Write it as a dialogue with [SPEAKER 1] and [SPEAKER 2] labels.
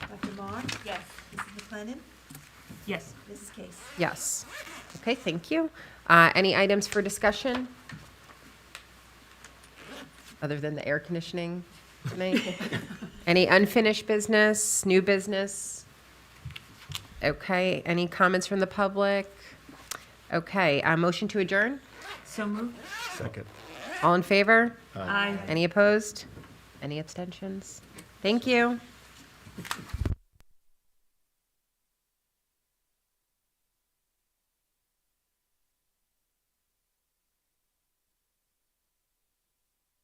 [SPEAKER 1] Yes.
[SPEAKER 2] Mrs. McLennan?
[SPEAKER 1] Yes.
[SPEAKER 2] Mrs. Case?
[SPEAKER 3] Yes. Okay, thank you. Uh, Any items for discussion? Other than the air conditioning tonight? Any unfinished business, new business? Okay, any comments from the public? Okay, uh, motion to adjourn?
[SPEAKER 1] So moved.
[SPEAKER 4] Second.
[SPEAKER 3] All in favor?
[SPEAKER 1] Aye.
[SPEAKER 3] Any opposed? Any abstentions? Thank you.